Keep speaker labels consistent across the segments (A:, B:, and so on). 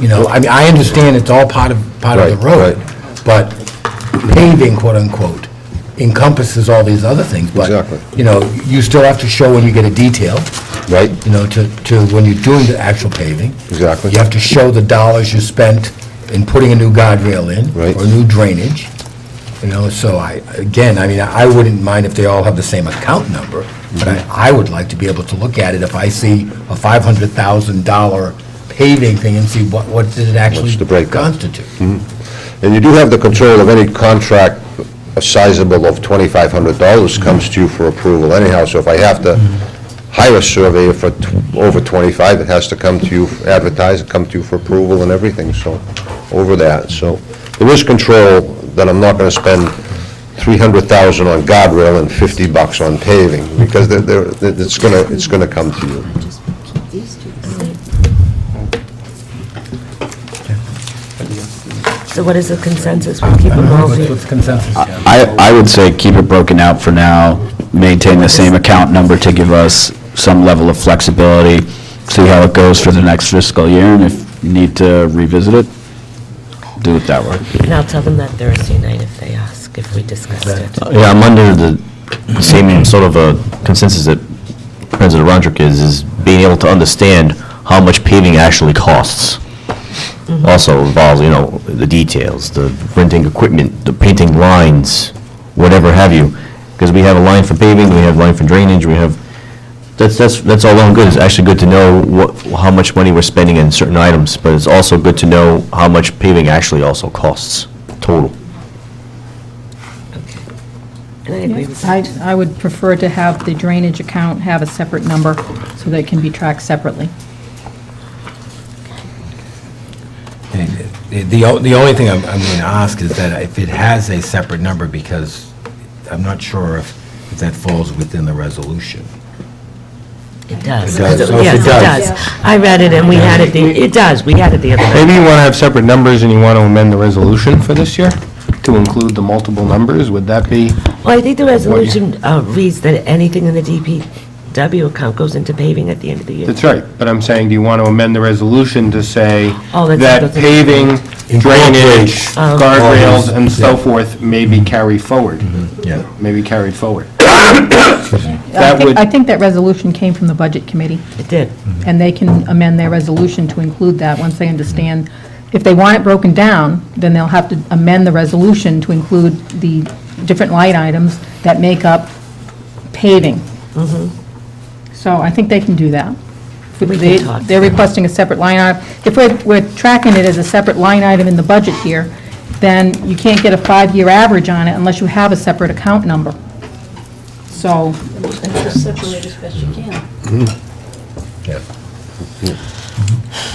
A: You know, I mean, I understand it's all part of, part of the
B: Right,
A: road,
B: right.
A: but paving, quote unquote, encompasses all these other things. but,
B: Exactly.
A: You know, you still have to show when you get a detail,
B: right?
A: you know, to, to, when you're doing the actual paving.
B: Exactly.
A: You have to show the dollars you spent in putting a new guardrail in.
B: Right.
A: Or new drainage, you know, so I, again, I mean, I wouldn't mind if they all have the same account number, but I, I would like to be able to look at it if I see a five hundred thousand dollar paving thing and see what, what did it actually
B: the breakdown?
A: constitute?
B: And you do have the control of any contract sizable of twenty-five hundred dollars comes to you for approval anyhow, so if I have to hire a surveyor for tw- over twenty-five, it has to come to you, advertise, come to you for approval and everything, so, over that, so. There is control that I'm not gonna spend three hundred thousand on guardrail and fifty bucks on paving, because they're, they're, it's gonna, it's gonna come to you.
C: Just keep these two the same. So what is the consensus? We'll keep them all.
A: What's consensus,
D: I, I would say keep it broken out for now, maintain the same account number to give us some level of flexibility, see how it goes for the next fiscal year, and if you need to revisit it, do it that way.
C: And I'll tell them that Thursday night if they ask, if we discussed it.
E: Yeah, I'm under the same sort of a consensus that President Roderick is, is being able to understand how much paving actually costs. Also involves, you know, the details, the renting equipment, the painting lines, whatever have you. Because we have a line for paving, we have a line for drainage, we have, that's, that's, that's all well and good. It's actually good to know what, how much money we're spending in certain items, but it's also good to know how much paving actually also costs, total.
C: Okay. And I agree with
F: I,
C: that.
F: I would prefer to have the drainage account have a separate number so that it can be tracked separately.
A: The, the o- the only thing I'm, I'm going to ask is that if it has a separate number, because I'm not sure if, if that falls within the resolution.
C: It does.
A: It does. Oh, it
C: Yes,
A: does.
C: it does. I read it and we had it, the- it does, we had it the other night.
G: Maybe you want to have separate numbers and you want to amend the resolution for this year to include the multiple numbers, would that be?
C: Well, I think the resolution uh, reads that anything in the DPW account goes into paving at the end of the year.
G: That's right, but I'm saying, do you want to amend the resolution to say
C: Oh, that's- Oh.
G: that
C: that's-
G: paving, drainage,
A: Incorporates.
G: guardrails, and so
A: Yeah. Mm-hmm,
G: forth may be carried forward?
A: Yeah.
G: Maybe carried forward.
F: I
G: That
F: think,
G: would,
F: I think that resolution came from the Budget Committee,
C: It did.
F: and they can amend their resolution to include that once they understand. If they want it broken down, then they'll have to amend the resolution to include the different line items that make up paving. So I think they can do that.
C: Mm-hmm. We
F: They-
C: can talk.
F: They're requesting a separate line item. If we're, we're tracking it as a separate line item in the budget here, then you can't get a five-year average on it unless you have a separate account number. So,
A: Yeah.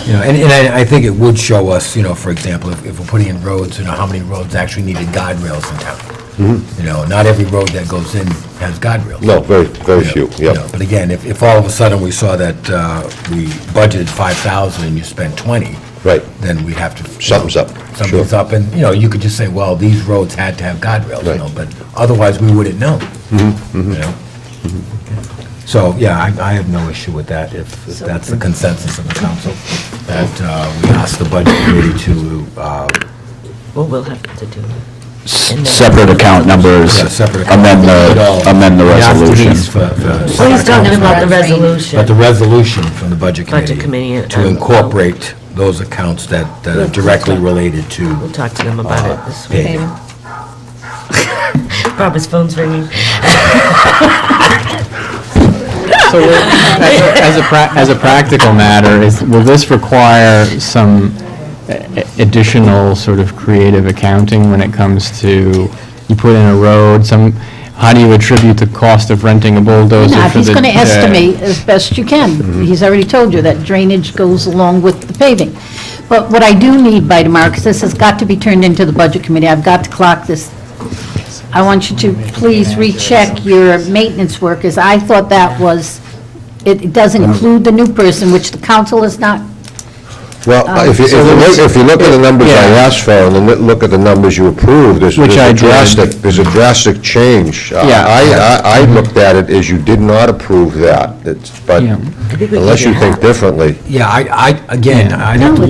A: You know, and, and I, I think it would show us, you know, for example, if, if we're putting in roads, you know, how many roads actually needed guardrails in town. You know, not every road that goes in has guardrails.
B: No, very, very
A: Yeah,
B: few,
A: you
B: yep.
A: know, But again, if, if all of a sudden we saw that uh, we budgeted 5,000 and you spent 20.
B: Right.
A: Then we'd have to.
B: Something's up,
A: Something's
B: sure.
A: up, and, you know, you could just say, well, these roads had to have guardrails, you
B: Right. Mm-hmm,
A: know, but otherwise we wouldn't know. You know? So, yeah, I, I have no issue with that, if if that's the consensus of the council, that uh, we ask the budget committee to, uh,
C: Well, we'll have to do it.
D: S- Separate account numbers,
A: Yeah, separate account.
D: amend the, amend the
A: we ask
D: resolution.
A: Denise for- for
C: Please
A: separate
C: don't
A: accounts.
C: give out the
A: But the
C: resolution.
A: resolution from the Budget Committee.
C: Budget Committee
A: To
C: and-
A: incorporate those accounts that that are directly related
C: We'll
A: to uh,
C: talk to them about it this week.
A: paving.
C: Robert's phone's ringing.
H: So will- as a- as a, pra- as a practical matter, is, will this require some a- a- additional sort of creative accounting when it comes to, you put in a road, some, how do you attribute the cost of renting a bulldozer
I: No,
H: for the...
I: he's going to
H: the-
I: estimate as best you can. He's already told you that drainage goes along with the paving. But what I do need by tomorrow, because this has got to be turned into the Budget Committee, I've got to clock this. I want you to please recheck your maintenance workers. I thought that was, it it doesn't include the new person, which the council is not.
B: Well, if you, if you look, if you look at the numbers I
H: Oh, Yeah.
B: asked for, and then li- look at the numbers you approved, there's
H: Which
B: there's
H: I
B: a
H: did.
B: drastic, there's a drastic change. Uh,
H: Yeah.
B: I, I, I looked at it as you did not approve that, It's- but
H: Yeah.
B: unless you think differently.
A: Yeah, I, I, again, I'd have to
I: No,
A: look